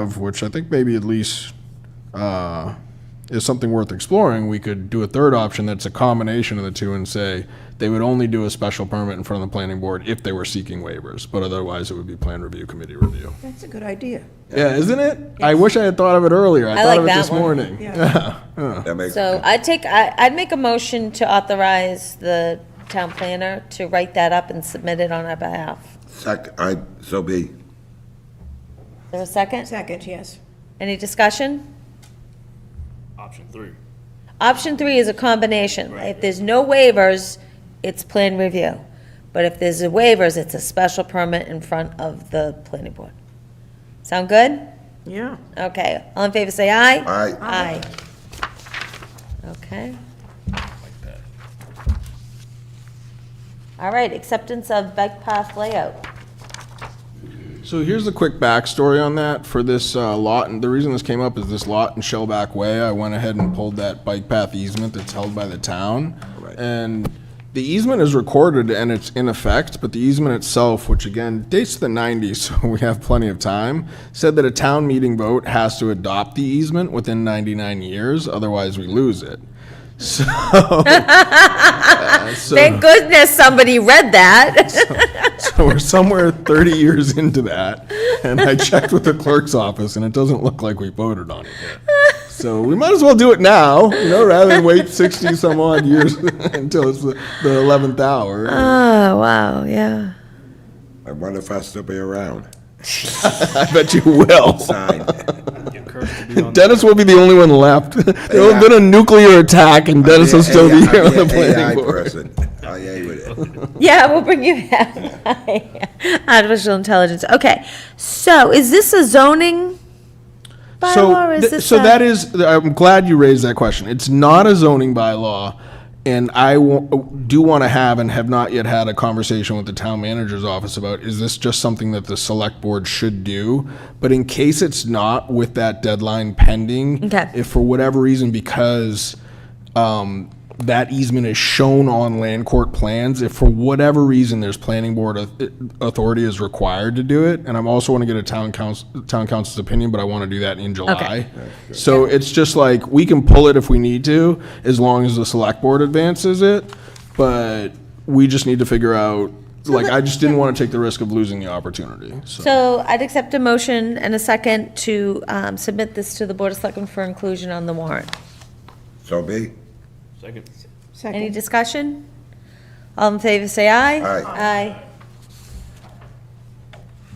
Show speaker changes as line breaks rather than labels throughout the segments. have, which I think maybe at least uh, is something worth exploring, we could do a third option that's a combination of the two and say they would only do a special permit in front of the planning board if they were seeking waivers, but otherwise it would be plan review committee review.
That's a good idea.
Yeah, isn't it? I wish I had thought of it earlier. I
I
thought of it
like
this
that one.
morning. Yeah.
That makes,
So I'd take, I, I'd make a motion to authorize the town planner to write that up and submit it on our behalf.
sec, I, so be,
Is there a second?
Second, yes.
Any discussion?
option three.
Option three is a combination. If there's no waivers, it's plan review. But if there's a waivers, it's a special permit in front of the planning board. Sound good?
Yeah.
Okay, all in favor, say aye.
I,
Aye. Okay. All right, acceptance of bike path layout.
So here's the quick backstory on that for this uh, lot, and the reason this came up is this lot in Shellback Way. I went ahead and pulled that bike path easement that's held by the town,
Right.
and the easement is recorded and it's in effect. But the easement itself, which again dates to the '90s, so we have plenty of time, said that a town meeting vote has to adopt the easement within 99 years, otherwise we lose it. So, Uh, so-
Thank goodness somebody read that.
so we're somewhere 30 years into that, and I checked with the clerk's office, and it doesn't look like we voted on it yet. So we might as well do it now, you know, rather than wait 60 some odd years until it's the the 11th hour.
Oh, wow, yeah.
I wonder if I'll still be around.
I bet you will.
Sign.
Get Kirk to be on the
Dennis will be the only one left. There'll have
Yeah.
been a nuclear attack, and Dennis will still be
AI
here on the
I'm an AI
planning board.
person. I am with it.
Yeah, we'll bring you back. Artificial intelligence, okay. So is this a zoning bylaw
So,
or is
th-
this
so
a-
that is, I'm glad you raised that question. It's not a zoning bylaw, and I wa- do want to have and have not yet had a conversation with the town manager's office about, is this just something that the select board should do? But in case it's not, with that deadline pending.
Okay.
If for whatever reason, because um, that easement is shown on land court plans, if for whatever reason there's planning board au- authority is required to do it, and I'm also want to get a town council, town council's opinion, but I want to do that in July. So it's just like, we can pull it if we need to, as long as the select board advances it, but we just need to figure out, like, I just didn't want to take the risk of losing the opportunity, so.
So I'd accept a motion and a second to um, submit this to the Board of Selectmen for inclusion on the warrant.
So be,
second.
Any
Second,
discussion? All in favor, say aye. Aye.
Aye.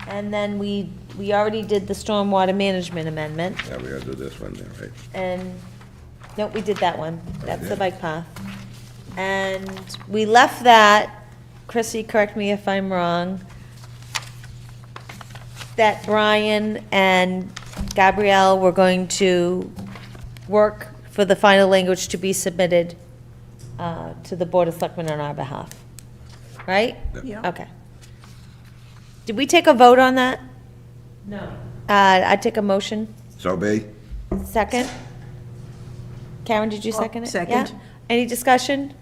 And then we, we already did the stormwater management amendment,
yeah, we gotta do this one then, right?
and, nope, we did that one. That's the bike path. And we left that, Chrissy, correct me if I'm wrong, that Brian and Gabrielle were going to work for the final language to be submitted uh, to the Board of Selectmen on our behalf, right?
yeah.
Okay. Did we take a vote on that? No. Uh, I take a motion,
So be,
second? Karen, did you second it?
second.
Yeah? Any discussion?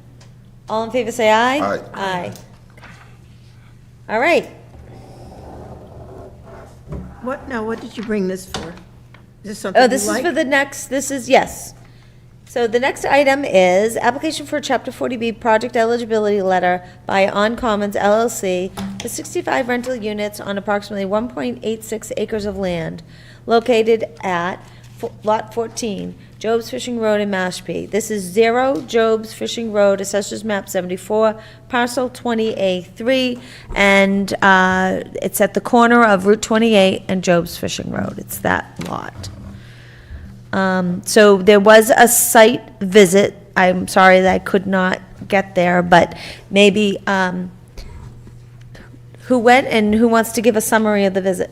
All in favor, say aye.
Aye.
Aye. All right,
What, now, what did you bring this for? Is this something
oh,
you
this is
like?
for the next, this is, yes. So the next item is application for Chapter 40B project eligibility letter by On Commons LLC for 65 rental units on approximately 1.86 acres of land located at fo- Lot 14, Job's Fishing Road in Mashpee. This is 0 Job's Fishing Road, Assessors Map 74, Parcel 20A3, and uh, it's at the corner of Route 28 and Job's Fishing Road. It's that lot. Um, so there was a site visit. I'm sorry that I could not get there, but maybe, um, who went and who wants to give a summary of the visit?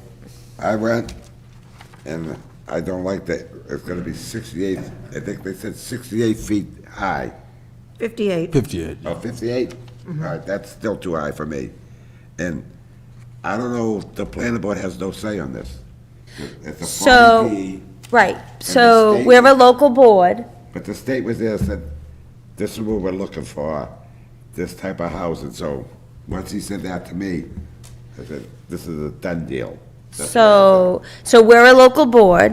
I went, and I don't like that, it's gonna be sixty-eight, I think they said sixty-eight feet high,
58.
58.
or fifty-eight? All
Mm-hmm.
right, that's still too high for me. And I don't know, the planning board has no say on this. It's a
So-
40B,
Right, so
state-
we're a local board,
But the state was there, said, this is what we're looking for, this type of housing, so, once he said that to me, I said, this is a done deal.
So, so we're a local board,